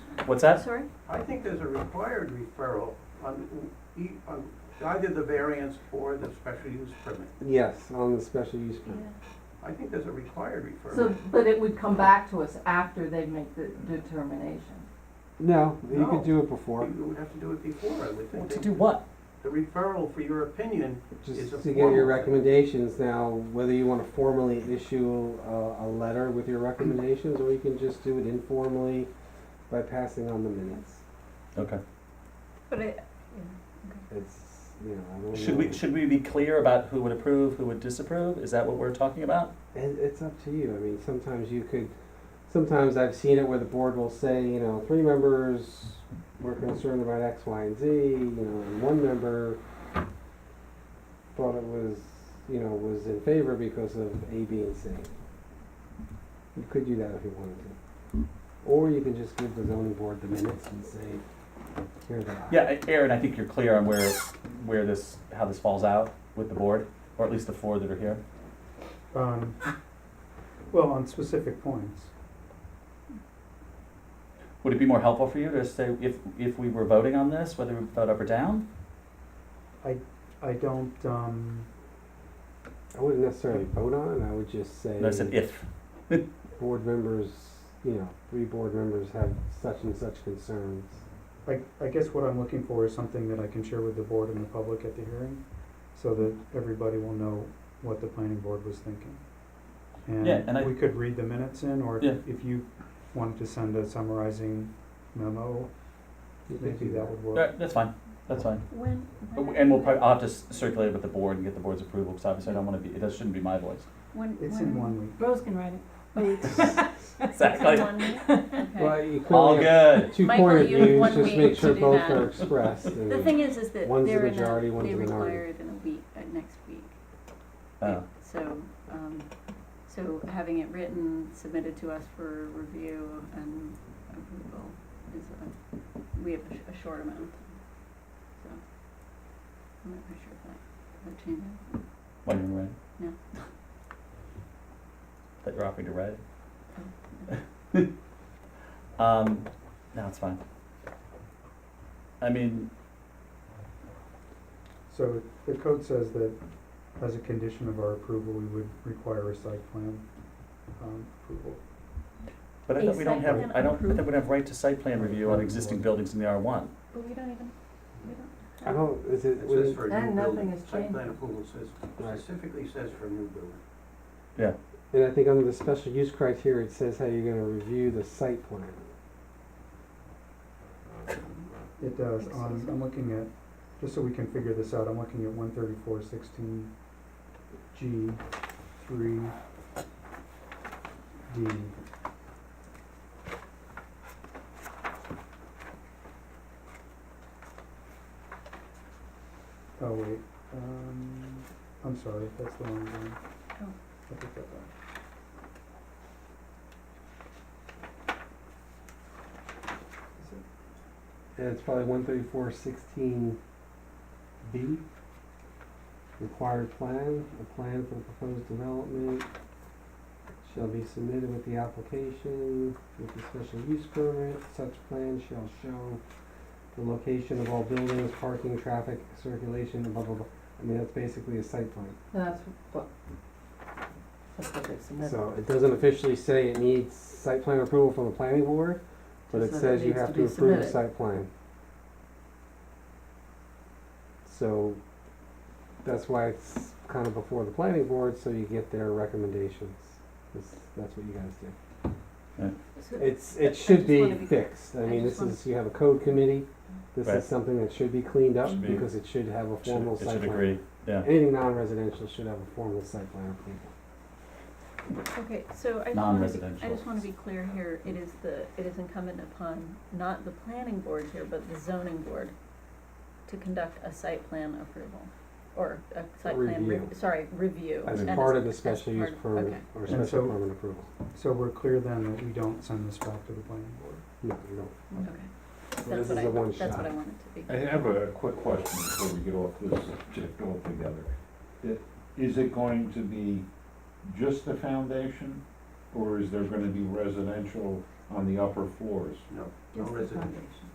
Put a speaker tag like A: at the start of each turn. A: What's that?
B: Sorry?
C: I think there's a required referral on, e- on either the variance or the special use permit.
D: Yes, on the special use permit.
C: I think there's a required
E: So,
C: referral.
E: but it would come back to us after they make the determination.
D: No, you
C: No.
D: could do it before,
C: You would have to do it before, I would
A: Well,
C: think.
A: To do what?
C: The referral for your opinion, It's
D: just
C: a
D: to get
C: formal
D: your
C: thing.
D: recommendations now, whether you wanna formally issue a, a letter with your recommendations, or you can just do it informally by passing on the minutes.
A: Okay.
B: But I,
D: It's, you know, I don't
A: Should
D: know.
A: we, should we be clear about who would approve, who would disapprove? Is that what we're talking about?
D: And it's up to you. I mean, sometimes you could, sometimes I've seen it where the board will say, you know, three members were concerned about X, Y, and Z, you know, and one member thought it was, you know, was in favor because of A, B, and C. You could do that if you wanted to. Or you can just give the zoning board the minutes and say, here they are.
A: Yeah, Aaron, I think you're clear on where, where this, how this falls out with the board, or at least the four that are here.
F: um, well, on specific points.
A: Would it be more helpful for you to say if, if we were voting on this, whether we vote up or down?
F: I don't, um,
D: I wouldn't necessarily vote on it. I would just say.
A: No, I said if.
D: board members, you know, three board members have such and such concerns.
F: I, I guess what I'm looking for is something that I can share with the board and the public at the hearing, so that everybody will know what the planning board was thinking.
A: Yeah, and I-
F: And we could read the minutes in, or
A: Yeah.
F: if if you wanted to send a summarizing memo,
D: You could
F: maybe
D: do
F: that would
A: All
F: work.
A: right, that's fine, that's fine.
B: when?
A: But we- And we'll probably, I'll have to s- circulate it with the board and get the board's approval, because obviously I don't wanna be, that shouldn't be my voice.
B: When,
F: It's in one week.
E: Rose can write it.
A: Exactly.
B: Exactly.
D: Well, you
A: All
D: clearly have
A: good.
D: two
B: Michael,
D: point of
B: you have
D: views,
B: one
D: just
B: week
D: make
B: to
D: sure
B: do
D: both
B: that.
D: are expressed and.
B: The thing is, is that
D: One's the
B: they're in
D: majority,
B: a,
D: one's
B: they
D: the minority.
B: require it in a week, uh, next week.
A: Oh,
B: So, um, so having it written, submitted to us for review and approval is a, we have a, sh- a short amount. of time. So, I'm not quite sure if that, that changes.
A: why you ready?
B: No.
A: That you're offering to write it? Um, no, it's fine. I mean,
F: So the code says that as a condition of our approval, we would require a site plan, um, approval.
A: but I thought we don't
B: Site
A: have,
B: plan
A: I don't, I think we
B: approval.
A: don't have right to site plan review on existing buildings in the R one.
B: But we don't even, we don't.
D: I don't, is it,
C: It
D: would
C: says
D: it-
C: for a
E: And
C: new
E: nothing
C: building,
E: has
C: site
E: changed.
C: plan approval says,
D: Right.
C: specifically says for a new building.
D: and I think under the special use criteria, it says how you're gonna review the site plan.
F: It does,
B: Think so,
F: on,
B: so.
F: I'm looking at, just so we can figure this out, I'm looking at one thirty-four sixteen G three D. Oh, wait, um, I'm sorry, that's the wrong one.
B: Oh.
F: I picked that up. Is it
D: And it's probably one thirty-four sixteen B. Required plan, a plan for the proposed development shall be submitted with the application, with the special use permit. Such plan shall show the location of all buildings, parking, traffic, circulation, and blah, blah, blah. I mean, that's basically a site plan.
E: That's what, that's what they submitted.
D: So it doesn't officially say it needs site plan approval from the planning board, but it
E: Just that it
D: says you
E: needs
D: have
E: to
D: to
E: be
D: approve the
E: submitted.
D: site plan. So that's why it's kind of before the planning board, so you get their recommendations. That's, that's what you guys do.
B: So-
D: It's,
B: I- I
D: it should
B: just
D: be
B: wanna be-
D: fixed. I
B: I
D: mean,
B: just
D: this
B: wanna-
D: is, you have a code committee. This
A: Right.
D: is something that should be cleaned up
A: Should be-
D: because it should have a
A: It should-
D: formal
A: It
D: site
A: should
D: plan.
A: agree, yeah.
D: Anything non-residential should have a formal site plan approval.
B: Okay, so I just wanna be, I
A: Non-residential.
B: just wanna be clear here, it is the, it is incumbent upon not the planning board here, but the zoning board to conduct a site plan approval, or a site plan, re-
D: Review.
B: sorry, review.
D: As
B: and
D: a part of the
B: as
D: special use
B: part-
D: permit,
B: okay.
D: or
F: And so-
D: special permit approval.
F: So we're clear then that we don't send this back to the planning board?
D: No, you don't.
B: Okay,
D: this
B: that's what
D: is a
B: I,
D: one
B: that's
D: shot.
B: what I wanted to be.
G: I have a quick question before we get off this subject altogether. It- Is it going to be just the foundation, or is there gonna be residential
H: on the upper floors?
A: no, no
B: just the
A: residential.
B: foundation.